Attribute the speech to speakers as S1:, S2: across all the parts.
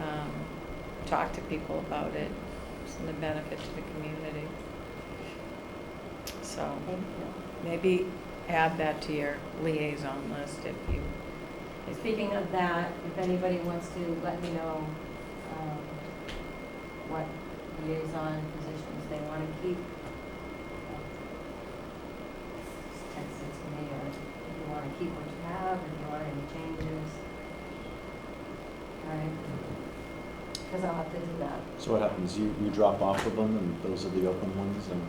S1: um, talk to people about it, it's in the benefit to the community. So maybe add that to your liaison list if you,
S2: Speaking of that, if anybody wants to let me know um, what liaison positions they want to keep. uh, just Text it to me, or if you want to keep what you have, if you want any changes. All right? Because I'll have to do that.
S3: So what happens, you, you drop off of them and those are the open ones and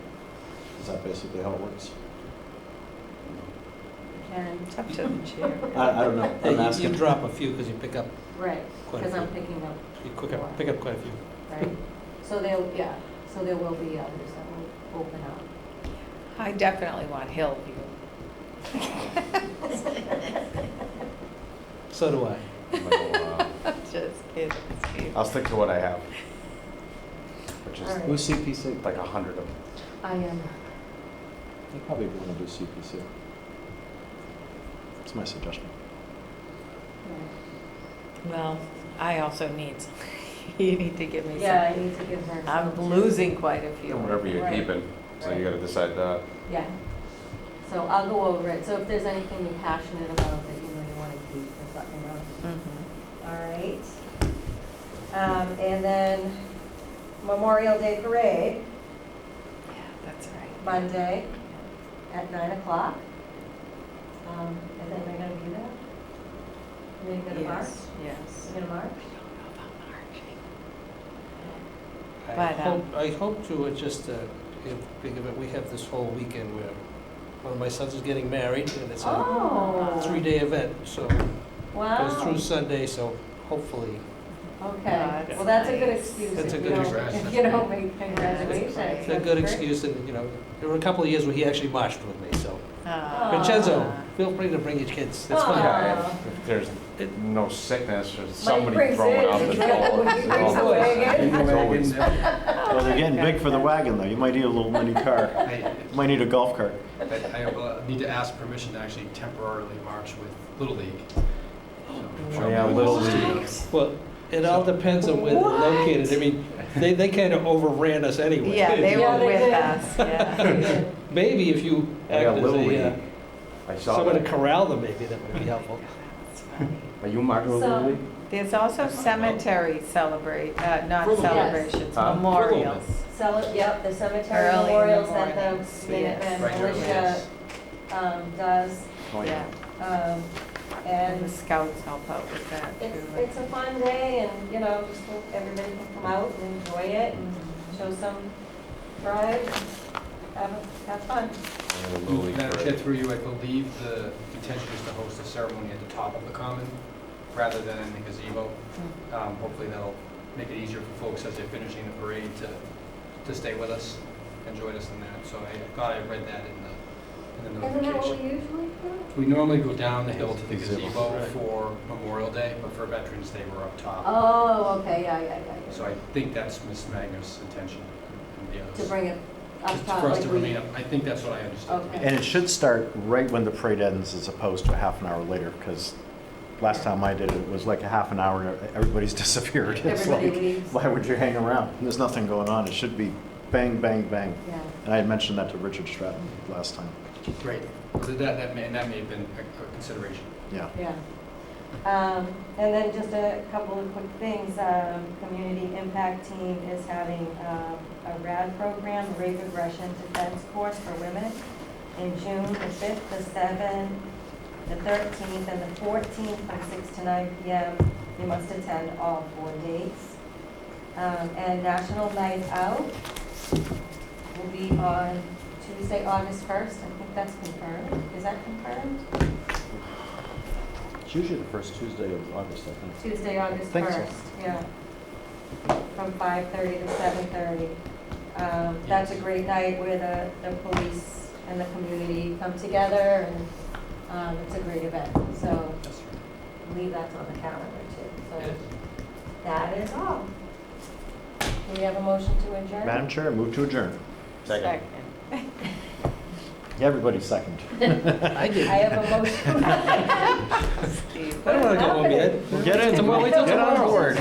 S3: is that basically how it works?
S2: And,
S1: it's up to the chair.
S3: I, I don't know,
S4: Yeah,
S3: I'm
S4: you- You
S3: asking.
S4: drop a few because you pick up,
S2: right,
S4: Quite a
S2: because I'm
S4: few.
S2: picking up
S4: you quick up, pick up quite a few.
S2: Right, so there, yeah, so there will be others that will open up.
S1: I definitely want Hillview.
S4: So do I.
S3: oh,
S1: Just kidding, Steve.
S5: I'll stick to what I have, which is
S2: All right.
S3: Who's CPC?
S5: like a hundred of them.
S2: I am,
S3: They probably want to do CPC. It's my suggestion.
S1: Well, I also need, some- you need to give me
S2: yeah, I
S1: some.
S2: need to give her.
S1: I'm
S2: some-
S1: losing quite a
S5: You know,
S1: few.
S5: whatever you're
S2: Right.
S5: keeping, so you
S2: Right.
S5: gotta decide that.
S2: Yeah, so I'll go over it, so if there's anything you're passionate about that you know you want to keep, just let me know.
S1: Mhm.
S2: All right. Um, and then Memorial Day Parade,
S1: Yeah, that's right.
S2: Monday at nine o'clock. Um, and then they're gonna be there? They're gonna march?
S1: Yes, yes.
S2: They're gonna march?
S1: I don't know about marching.
S4: I
S1: But, um,
S4: hope, I hope to, uh, just, uh, if, think of it, we have this whole weekend where one of my sons is getting married and
S5: uh,
S4: it's a
S2: Oh.
S4: three-day event, so
S2: Wow.
S1: Oh.
S4: goes through Sunday, so hopefully.
S2: Okay,
S1: That's
S2: well, that's a good
S1: nice.
S2: excuse.
S4: That's
S2: if
S4: a
S2: you
S4: good
S2: don't-
S4: excuse.
S2: If you don't make
S1: That's
S2: congratulations.
S1: great.
S4: It's a good excuse and, you know, there were a couple of years where he actually marched with me, so.
S1: Ah.
S4: Vincenzo, feel free to bring your kids, that's fine.
S2: Aw.
S5: Oh, Yeah, if- if there's no sickness or
S2: brings
S5: somebody
S2: Uh, it,
S5: throwing out the
S2: it's right,
S5: door.
S2: he brings
S4: it
S2: back in.
S5: It's always-
S3: Well, they're getting big for the wagon though. You might need a little mini car.
S6: I,
S3: Might need a golf cart.
S6: I uh, need to ask permission to actually temporarily march with Little League.
S5: Oh, yeah, Little League.
S4: Well, it all depends on where they're located, I mean, they, they kind of overran us anyway.
S1: Yeah, they
S2: Yeah,
S1: were
S2: they
S1: with
S2: did.
S1: us, yeah.
S4: Maybe if you
S5: I got
S4: act as
S5: Little
S4: a, uh,
S5: League. I saw
S4: someone to
S5: that.
S4: corral them, maybe that would be helpful.
S1: That's funny.
S5: Are you marking with
S2: So-
S5: Little League?
S1: There's also cemetery celebrate, uh, not
S6: Frivolous.
S1: celebrations,
S5: Huh?
S1: memorials.
S2: Cele- yep, the cemetery
S1: Early in the
S2: memorials that
S1: morning,
S2: the Minutemen
S6: Right, early,
S2: militia,
S6: yes.
S2: um, does,
S3: Oh,
S1: Yeah,
S2: um,
S1: and the
S2: and
S1: scouts help out with that
S2: it's,
S1: too.
S2: it's a fun day and, you know, just hope everybody can come out and enjoy it and show some pride, and have, have fun.
S5: I got a Little League
S6: Madam Chair,
S5: parade.
S6: through you, I believe the intention is to host a ceremony at the top of the common rather than in the gazebo.
S2: Hmm.
S6: Um, Hopefully that'll make it easier for folks as they're finishing the parade to, to stay with us and join us in that. So I thought I read that in the, in the
S2: Isn't that what
S6: notification.
S2: we usually do?
S6: We normally go down the hill to the
S3: Gazebo.
S6: gazebo
S4: Right.
S6: for Memorial Day, but for Veterans Day, we're up top.
S2: Oh, okay, yeah, yeah, yeah, yeah.
S6: So I think that's Ms. Magnus' intention and the
S2: To
S6: others.
S2: bring it up
S6: Just
S2: top,
S6: For us to
S2: like we-
S6: remain up, I think that's what I understood.
S2: Okay.
S3: And it should start right when the parade ends as opposed to half an hour later because last time I did it, it was like a half an hour, and everybody's disappeared. It's
S2: Everybody
S3: like,
S2: leaves.
S3: Why would you hang around? There's nothing going on. It should be bang, bang, bang.
S2: Yeah.
S3: And I had mentioned that to Richard Stratton last time.
S6: Great. So that, that may, and that may have been a a consideration.
S3: Yeah.
S2: Yeah. Um, And then just a couple of quick things. Um, Community Impact Team is having um, a RAD program, Rape Aggression Defense Course for Women, in June, the 5th, the 7th, the 13th, and the 14th, from 6 to 9 p.m. You must attend all four dates. Um, And National Night Out will be on Tuesday, August 1st. I think that's confirmed. Is that confirmed?
S3: It's usually the first Tuesday of August, I think.
S2: Tuesday, August
S3: Think so.
S2: first, yeah. From five thirty to seven thirty. Um, that's a great night where the, the police and the community come together and, um, it's a great event. So
S6: That's true.
S2: leave that on the calendar too.
S6: Yeah.
S2: So that is all. Do we have a motion to adjourn?
S3: Madam Chair, move to adjourn.
S5: Second.
S3: Everybody second.
S4: I
S2: I
S4: did. I
S2: have a motion.
S1: Steve.
S4: don't want to go home yet.
S3: Get in.
S4: Tomorrow, wait till
S3: Get on
S4: tomorrow.
S3: board.